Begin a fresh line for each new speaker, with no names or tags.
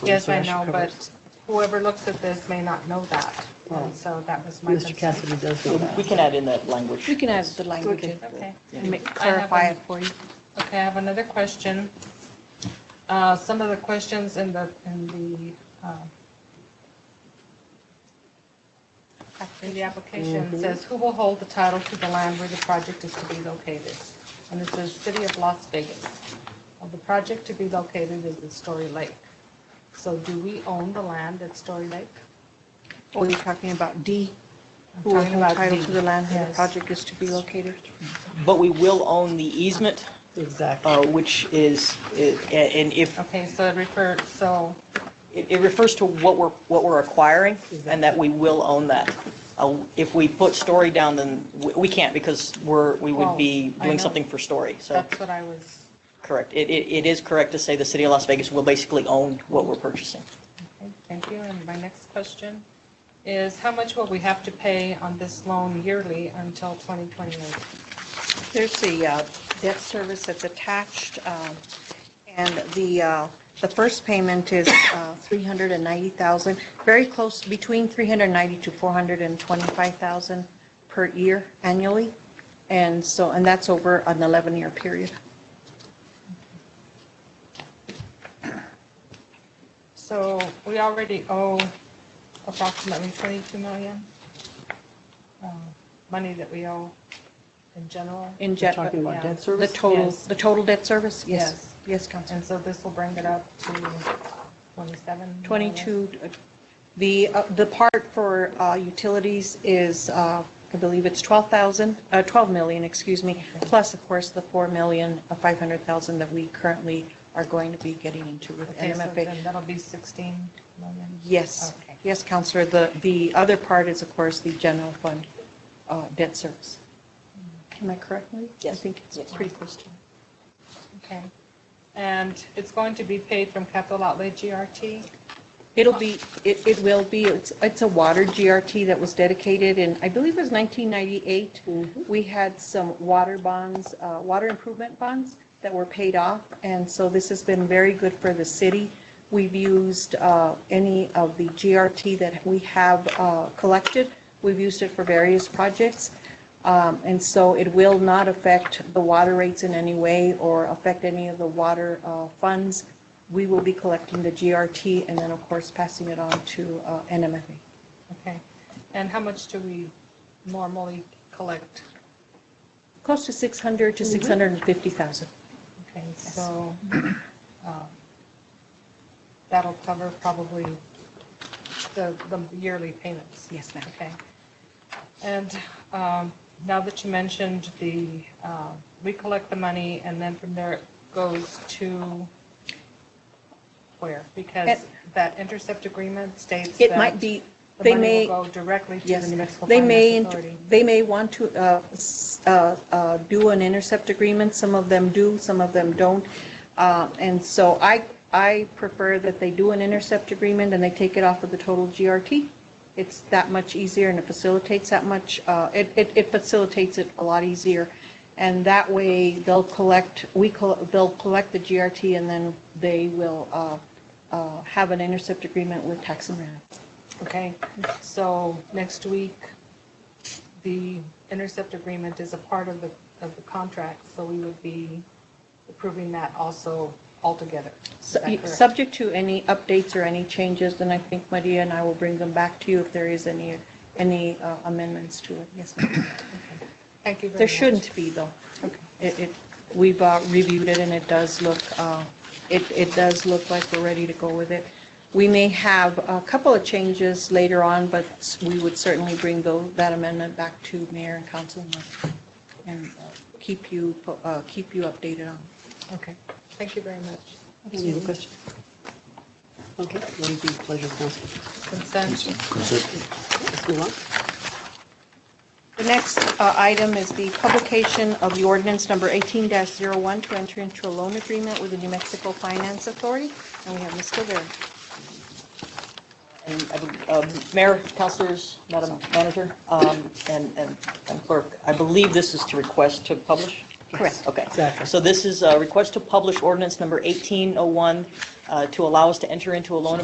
Yes, I know, but whoever looks at this may not know that. And so that was my
Mr.
concern.
Cassidy does know
We
that.
can add in that language.
We can add the language in
Okay.
and make-
I have
clarify
an-
it for you.
Okay, I have another question. Uh, Some of the questions in the, in the, uh, in the application Mm-hmm. says, who will hold the title to the land where the project is to be located? And it says, City of Las Vegas. Well, The project to be located is at Story Lake. So do we own the land at Story Lake?
Or Oh, you're talking about D?
I'm
Who will
talking about
hold title
D,
to the land where the
yes.
project is to be located?
But we will own the easement,
Exactly.
uh, which is, i- and if,
Okay, so it referred, so,
it it refers to what we're, what we're acquiring, and that we will own that. Uh, If we put Story down, then we- we can't, because we're, we would be
Well, Oh, I
doing
know.
something for Story, so,
that's what I was,
correct. It It it is correct to say the city of Las Vegas will basically own what we're purchasing.
okay, thank you. And my next question is, how much will we have to pay on this loan yearly until 2028?
There's the uh, debt service that's attached, um, and the, uh, the first payment is uh, 390,000, very close, between 390 to 425,000 per year annually, and so, and that's over an 11-year period.
So we already owe approximately 22 million um, money that we owe in general.
In
You're
jet,
talking about
yeah.
debt
the
service?
total,
Yes.
the total debt service?
Yes.
Yes, Council.
And so this will bring it up to 27?
22, uh, the, uh, the part for uh, utilities is, uh, I believe it's 12,000, uh, 12 million, excuse me, plus, of course, the 4 million, uh, 500,000 that we currently are going to be getting into with
Okay, so then
NMFA.
that'll be 16 million.
Yes,
Okay.
yes, Counselor, the, the other part is, of course, the general fund uh, debt service. Am I correct, Marie?
Yes.
I think
Yes.
it's pretty close to.
Okay. And it's going to be paid from capital outlay GRT?
It'll be, it, it will be, it's, it's a water GRT that was dedicated in, I believe it was 1998. We had some water bonds, uh, water improvement bonds that were paid off, and so this has been very good for the city. We've used uh, any of the GRT that we have uh, collected, we've used it for various projects. Um, And so it will not affect the water rates in any way or affect any of the water uh, funds. We will be collecting the GRT and then, of course, passing it on to uh, NMFA.
Okay. And how much do we normally collect?
Close to 600 to 650,000.
Okay, so um, that'll cover probably the the yearly payments.
Yes, ma'am.
Okay. And um, now that you mentioned the, uh, we collect the money and then from there it goes to where? Because
It-
that intercept agreement states that.
It might be, they may.
The money will go directly to the
Yes,
municipal
they may,
finance
int-
authority.
they may want to uh, s- uh, uh, do an intercept agreement, some of them do, some of them don't. Uh, And so I, I prefer that they do an intercept agreement and they take it off of the total GRT. It's that much easier and it facilitates that much, uh, it, it it facilitates it a lot easier. And that way, they'll collect, we, col- they'll collect the GRT and then they will uh, uh, have an intercept agreement with Tax and Rent.
Okay, so next week, the intercept agreement is a part of the, of the contract, so we would be approving that also altogether. Is that
Su-
correct?
Subject to any updates or any changes, then I think Maria and I will bring them back to you if there is any, any uh, amendments to it. Yes, ma'am.
Thank you very much.
There shouldn't be, though. It, it, we've uh, reviewed it, and it does look, uh, it, it does look like we're ready to go with it. We may have a couple of changes later on, but s- we would certainly bring tho- that amendment back to mayor and council and- and uh, keep you, po- uh, keep you updated on.
Okay, thank you very much.
Any other questions? Okay, what would be the pleasure of the council?
Consent,
Let's move on.
The next uh, item is the publication of the ordinance number 18-01 to enter into a loan agreement with the New Mexico Finance Authority, and we have Ms. Rivera.
And I bel- um, Mayor, councilors, Madam Manager, um, and and and Clerk, I believe this is to request to publish?
Correct.
Okay.
Exactly.
oh So this is a request to publish ordinance number 1801 uh, to allow us to enter into a loan